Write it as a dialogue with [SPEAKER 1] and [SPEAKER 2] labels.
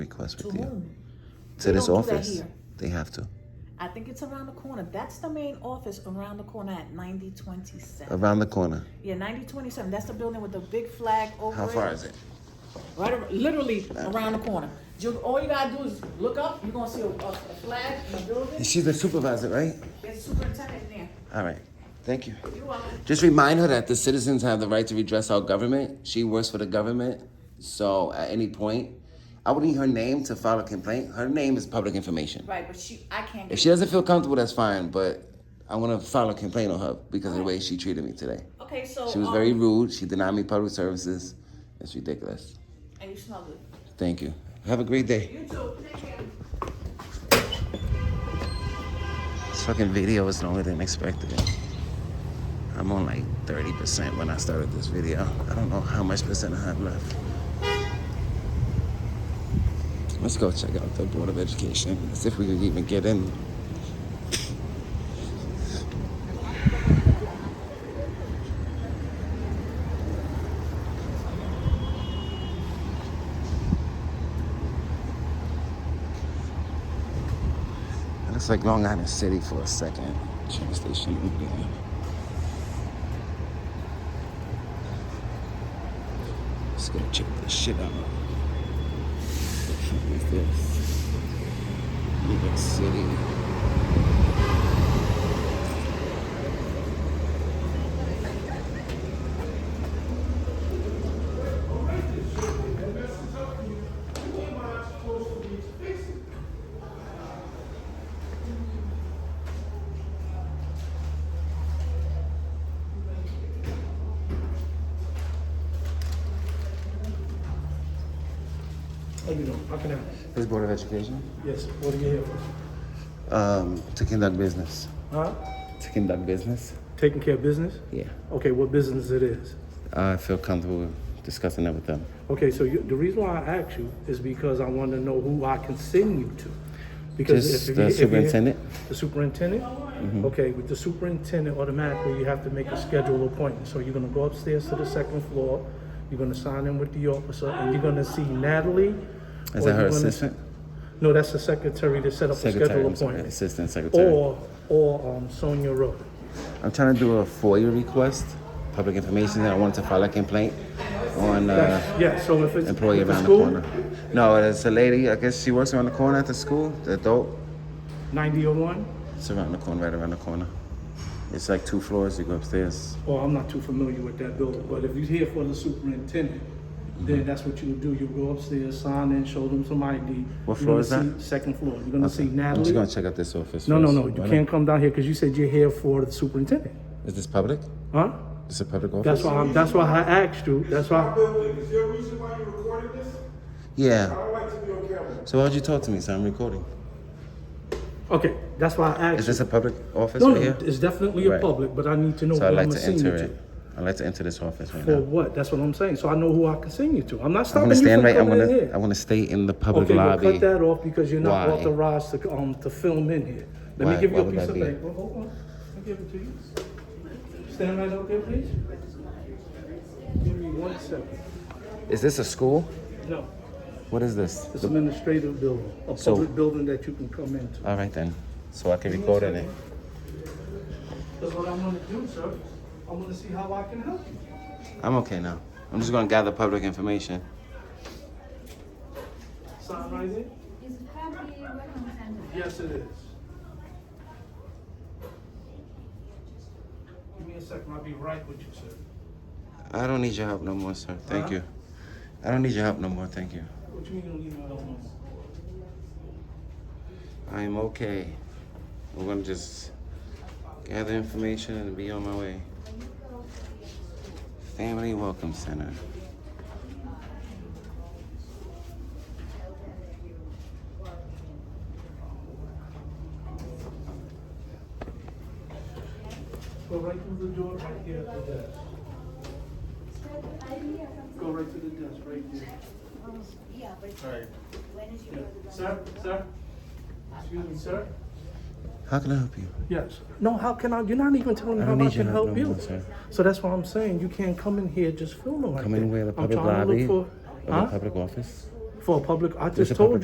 [SPEAKER 1] request
[SPEAKER 2] To
[SPEAKER 1] with you.
[SPEAKER 2] whom?
[SPEAKER 1] To this
[SPEAKER 2] don't do that
[SPEAKER 1] office.
[SPEAKER 2] here.
[SPEAKER 1] They have to.
[SPEAKER 2] I think it's around the corner. That's the main office around the corner at 9027.
[SPEAKER 1] Around the corner.
[SPEAKER 2] Yeah, 9027. That's the building with the big flag over
[SPEAKER 1] How far is it?
[SPEAKER 2] Right, ar- literally around the corner. You, all you gotta do is look up. You're gonna see a, a, a flag in the building.
[SPEAKER 1] She's the supervisor, right?
[SPEAKER 2] There's a superintendent in
[SPEAKER 1] All right. Thank you.
[SPEAKER 2] there. You are.
[SPEAKER 1] Just remind her that the citizens have the right to redress our government. She works for the government. So at any point, I would need her name to file a complaint. Her name is public information.
[SPEAKER 2] Right, but she, I can't
[SPEAKER 1] If
[SPEAKER 2] get.
[SPEAKER 1] she doesn't feel comfortable, that's fine. But I want to file a complaint on her because of the way she treated me today.
[SPEAKER 2] Okay, so.
[SPEAKER 1] She was
[SPEAKER 2] um,
[SPEAKER 1] very rude. She denied me public services. It's ridiculous.
[SPEAKER 2] And you smell good.
[SPEAKER 1] Thank you. Have a great day.
[SPEAKER 2] You too. Take care.
[SPEAKER 1] This fucking video is longer than expected. I'm on like 30% when I started this video. I don't know how much percent I have left. Let's go check out the Board of Education and see if we can even get in. It looks like Long Island City for a second. Train station. yeah. Let's go check this shit out. What is this? New York City.
[SPEAKER 3] How you doing? How can I?
[SPEAKER 1] This Board of Education?
[SPEAKER 3] Yes, what are you here for?
[SPEAKER 1] Um, to conduct business.
[SPEAKER 3] Huh?
[SPEAKER 1] To conduct business?
[SPEAKER 3] Taking care of business?
[SPEAKER 1] Yeah.
[SPEAKER 3] Okay, what business it is?
[SPEAKER 1] I feel comfortable discussing that with them.
[SPEAKER 3] Okay, so you, the reason why I asked you is because I want to know who I can send you to.
[SPEAKER 1] Just
[SPEAKER 3] you-
[SPEAKER 1] the
[SPEAKER 3] you-
[SPEAKER 1] superintendent? Mm-hmm.
[SPEAKER 3] the superintendent? Okay, with the superintendent, automatically you have to make a schedule appointment. So you're gonna go upstairs to the second floor, you're gonna sign in with the officer, and you're gonna see Natalie.
[SPEAKER 1] Is that
[SPEAKER 3] or
[SPEAKER 1] her
[SPEAKER 3] you're gonna-
[SPEAKER 1] assistant?
[SPEAKER 3] No, that's the secretary to set up a
[SPEAKER 1] Secretary,
[SPEAKER 3] schedule
[SPEAKER 1] I'm sorry,
[SPEAKER 3] appointment.
[SPEAKER 1] assistant secretary.
[SPEAKER 3] Or, or um, Sonia Rowe.
[SPEAKER 1] I'm trying to do a FOIA request, public information, and I wanted to file a complaint on uh,
[SPEAKER 3] Yeah, so if it's.
[SPEAKER 1] employee
[SPEAKER 3] if it's
[SPEAKER 1] around the
[SPEAKER 3] school,
[SPEAKER 1] corner. No, it's a lady. I guess she works around the corner at the school. The adult.
[SPEAKER 3] 9001?
[SPEAKER 1] It's around the corner, right around the corner. It's like two floors. You go upstairs.
[SPEAKER 3] Well, oh, I'm not too familiar with that building, but if you're here for the superintendent, then that's what you would do. You go upstairs, sign in, show them some ID.
[SPEAKER 1] Mm-hmm. What
[SPEAKER 3] You're gonna
[SPEAKER 1] floor is
[SPEAKER 3] see- Second floor. You're gonna see
[SPEAKER 1] I'm just
[SPEAKER 3] Natalie.
[SPEAKER 1] gonna check out this office.
[SPEAKER 3] No, no,
[SPEAKER 1] first.
[SPEAKER 3] no, you
[SPEAKER 1] Why
[SPEAKER 3] can't come down here because you said you're here for the superintendent,
[SPEAKER 1] not? Is this public?
[SPEAKER 3] huh?
[SPEAKER 1] It's a public office.
[SPEAKER 3] That's why, I'm- that's why I asked you, that's why.
[SPEAKER 4] building. Is there a reason why you're recording this? I
[SPEAKER 1] Yeah.
[SPEAKER 4] don't like to be on camera.
[SPEAKER 1] So why'd you talk to me? So I'm recording.
[SPEAKER 3] Okay, that's why I
[SPEAKER 1] Is
[SPEAKER 3] asked you.
[SPEAKER 1] this a public office
[SPEAKER 3] No,
[SPEAKER 1] right
[SPEAKER 3] no,
[SPEAKER 1] here?
[SPEAKER 3] it's definitely a
[SPEAKER 1] Right.
[SPEAKER 3] public, but I need to know
[SPEAKER 1] So I'd
[SPEAKER 3] what I'm
[SPEAKER 1] like
[SPEAKER 3] gonna
[SPEAKER 1] to
[SPEAKER 3] send you
[SPEAKER 1] enter
[SPEAKER 3] to.
[SPEAKER 1] it. I'd like to enter this office right
[SPEAKER 3] For
[SPEAKER 1] now.
[SPEAKER 3] what? That's what I'm saying. So I know who I can send you to. I'm not
[SPEAKER 1] I'm
[SPEAKER 3] stopping
[SPEAKER 1] gonna
[SPEAKER 3] you from
[SPEAKER 1] stand right. I'm
[SPEAKER 3] coming in
[SPEAKER 1] gonna. I
[SPEAKER 3] here.
[SPEAKER 1] want to stay in the public
[SPEAKER 3] Okay, well,
[SPEAKER 1] lobby.
[SPEAKER 3] cut that off because you're not
[SPEAKER 1] Why?
[SPEAKER 3] authorized to, um, to film in here. Let
[SPEAKER 1] Why-
[SPEAKER 3] me give
[SPEAKER 1] why
[SPEAKER 3] you a
[SPEAKER 1] would
[SPEAKER 3] piece
[SPEAKER 1] that
[SPEAKER 3] of
[SPEAKER 1] be?
[SPEAKER 3] paper. Hold on. I'll give it to you. Stand right out there, please. Give me one second.
[SPEAKER 1] Is this a school?
[SPEAKER 3] No,
[SPEAKER 1] What is this?
[SPEAKER 3] it's an administrative building, a
[SPEAKER 1] So-
[SPEAKER 3] public building that you can come into.
[SPEAKER 1] All right then. So I can record in it.
[SPEAKER 3] That's what I'm gonna do, sir. I'm gonna see how I can help you.
[SPEAKER 1] I'm okay now. I'm just gonna gather public information.
[SPEAKER 3] Sign right there?
[SPEAKER 5] Is it property recommended?
[SPEAKER 3] Yes, it is. Give me a second, I'll be right with you, sir.
[SPEAKER 1] I don't need your help no more, sir. Thank
[SPEAKER 3] Huh?
[SPEAKER 1] you. I don't need your help no more. Thank you.
[SPEAKER 3] What you mean you don't need my help no more?
[SPEAKER 1] I'm okay. I'm gonna just gather information and be on my way. Family Welcome Center.
[SPEAKER 3] Go right through the door, right here at the desk. Go right to the desk, right there.
[SPEAKER 5] Yeah, but
[SPEAKER 3] Alright.
[SPEAKER 5] when is your?
[SPEAKER 3] Yeah. Sir, sir? Excuse me, sir?
[SPEAKER 1] How can I help you?
[SPEAKER 3] Yes. No, how can I, you're not even telling me
[SPEAKER 1] I
[SPEAKER 3] how
[SPEAKER 1] don't
[SPEAKER 3] I
[SPEAKER 1] need your
[SPEAKER 3] can
[SPEAKER 1] help
[SPEAKER 3] help
[SPEAKER 1] no
[SPEAKER 3] you.
[SPEAKER 1] more, sir.
[SPEAKER 3] So that's why I'm saying, you can't come in here just filming like that.
[SPEAKER 1] Come in where the
[SPEAKER 3] I'm
[SPEAKER 1] public
[SPEAKER 3] trying to
[SPEAKER 1] lobby or
[SPEAKER 3] look for,
[SPEAKER 1] the
[SPEAKER 3] huh?
[SPEAKER 1] public office?
[SPEAKER 3] for a public, I
[SPEAKER 1] There's
[SPEAKER 3] just
[SPEAKER 1] a public
[SPEAKER 3] told you.